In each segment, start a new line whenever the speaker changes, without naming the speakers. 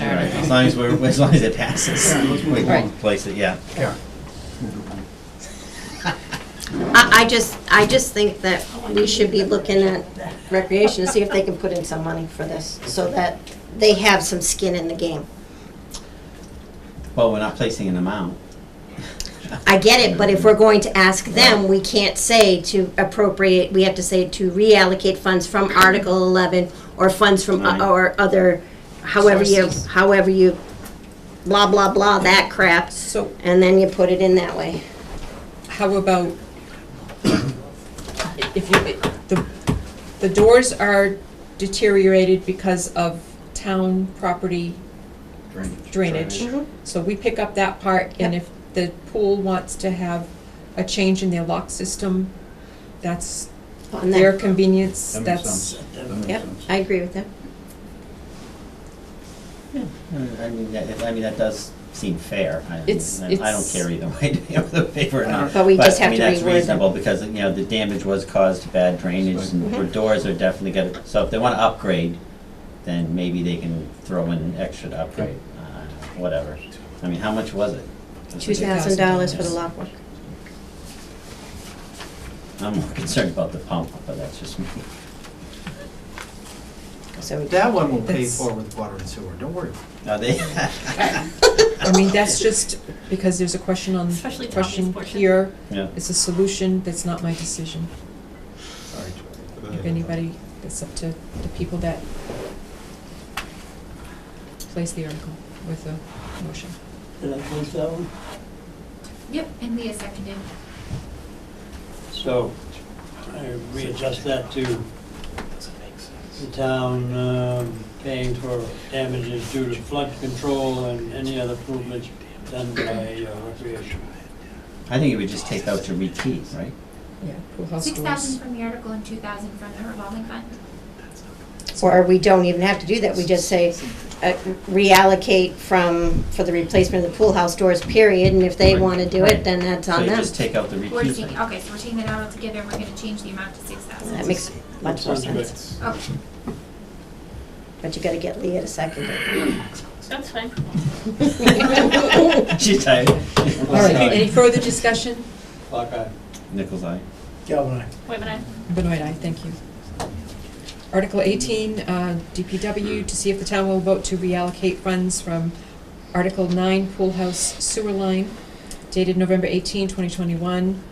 long as we're, as long as it passes.
Yeah, let's move
We
along.
won't place it, yeah.
Yeah.
I, I just, I just think that we should be looking at recreation to see if they can put in some money for this, so that they have some skin in the game.
Well, we're not placing an amount.
I get it, but if we're going to ask them, we can't say to appropriate, we have to say to reallocate funds from Article eleven or funds from,
Right.
o- or other, however you, however you, blah, blah, blah, that crap,
So
and then you put it in that way.
how about, if you, the, the doors are deteriorated because of town property drainage.
Mm-hmm.
So we pick up that part, and if the pool wants to have a change in their lock system, that's
On that.
their convenience,
That makes
that's,
sense. That makes
Yep,
sense.
I agree with that.
I mean, that, I mean, that does seem fair. I-
It's-
I I don't
it's-
care either way, to be able to pay for it or not.
But we just have to
I mean, that's
reword them.
reasonable, because, you know, the damage was caused to bad drainage,
Right.
Mm-hmm.
and the doors are definitely gonna, so if they wanna upgrade, then maybe they can throw in an extra to upgrade, uh, whatever. I mean, how much was it?
Two thousand dollars for the lock work.
I'm more concerned about the pump, but that's just me.
So we
That one we'll pay
That's-
for with water and sewer, don't worry.
Are they?
I mean, that's just because there's a question on,
Especially Tommy's
question
portion.
here.
Yeah.
It's a solution, that's not my decision.
Sorry, Joy.
If anybody, it's up to the people that place the article with the motion.
Did I place that one?
Yep, and Leah seconded.
So I readjust that to the town um, paying for damages due to flood control and any other improvements done by uh, recreation.
I think you would just take out to rekey, right?
Yeah, pool house
Six
rules.
thousand from the article and two thousand from the revolving fund.
Or we don't even have to do that, we just say uh, reallocate from, for the replacement of the pool house doors, period, and if they
Right.
want to do
Right.
it, then that's
So
on
you
them.
just take out the
We're
rekey
taking,
thing.
okay, so we're taking that out altogether, and we're gonna change the amount to six
That
thousand.
makes much more
Sounds good.
sense,
Okay,
but you gotta get Leah to second it.
That's fine.
She's tired.
All right, any further discussion?
Clock eye.
Nichols eye.
Galvin, aye.
Wait a minute.
Benoit, aye, thank you. Article eighteen, uh, DPW, to see if the town will vote to reallocate funds from Article nine, pool house sewer line, dated November 18, 2021,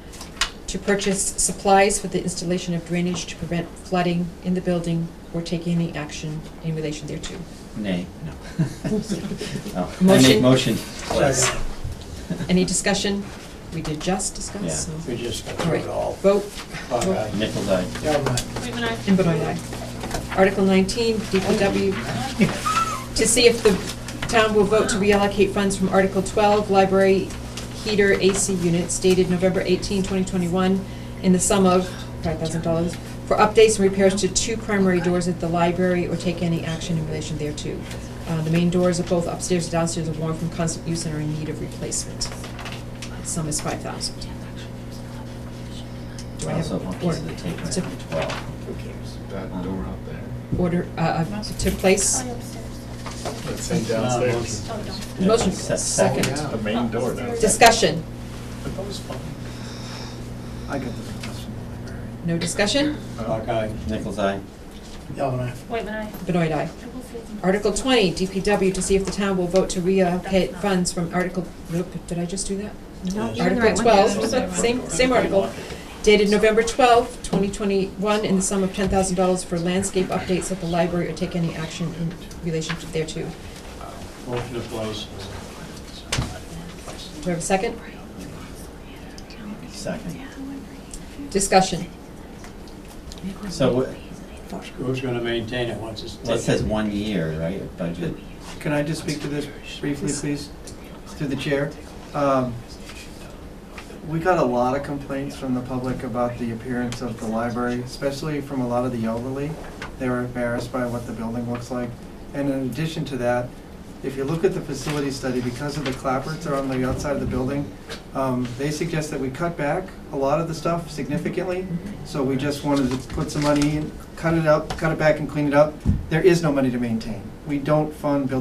to purchase supplies for the installation of drainage to prevent flooding in the building or take any action in relation thereto.
Nay, no. Oh, I make
Motion.
motion. Yes.
Any discussion? We did just discuss, so.
Yeah.
We just got
All
through
right,
it all.
vote.
Clock
Vote.
eye.
Nichols eye.
Galvin, aye.
Wait a minute.
And Benoit, aye. Article 19, DPW, to see if the town will vote to reallocate funds from Article 12, library heater AC units dated November 18, 2021, in the sum of $5,000 for updates and repairs to two primary doors at the library or take any action in relation thereto. Uh, The main doors of both upstairs and downstairs are worn from constant use and are in need of replacement. The sum is 5,000. Do I have
Also, one piece of the tape right
to
on twelve. Who cares?
That door out there.
order, uh, uh, to place?
Let's say downstairs.
Oh, don't.
Yeah,
Motion,
se-
second.
The main door downstairs.
Discussion,
That was fun.
I got the request from the library.
no discussion,
Clock eye.
Nichols eye.
Galvin, aye.
Wait a minute.
Benoit aye. Article twenty, DPW, to see if the town will vote to reallocate funds from Article, nope, did I just do that?
No,
Yes.
you're in the right one.
Article twelve, same, same article, dated November twelfth, twenty twenty-one, in the sum of ten thousand dollars for landscape updates at the library or take any action in relation to thereto.
Motion to place.
Do I have a second?
Second.
Discussion.
So what-
Who's gonna maintain it once it's
well, it
taken?
says one year, right, of budget?
Can I just speak to this briefly, please, through the chair? Um, We got a lot of complaints from the public about the appearance of the library, especially from a lot of the elderly. They were embarrassed by what the building looks like. And in addition to that, if you look at the facility study, because of the clapboards that are on the outside of the building, um, they suggest that we cut back a lot of the stuff significantly. So we just wanted to put some money in, cut it up, cut it back and clean it up. There is no money to maintain. We don't fund building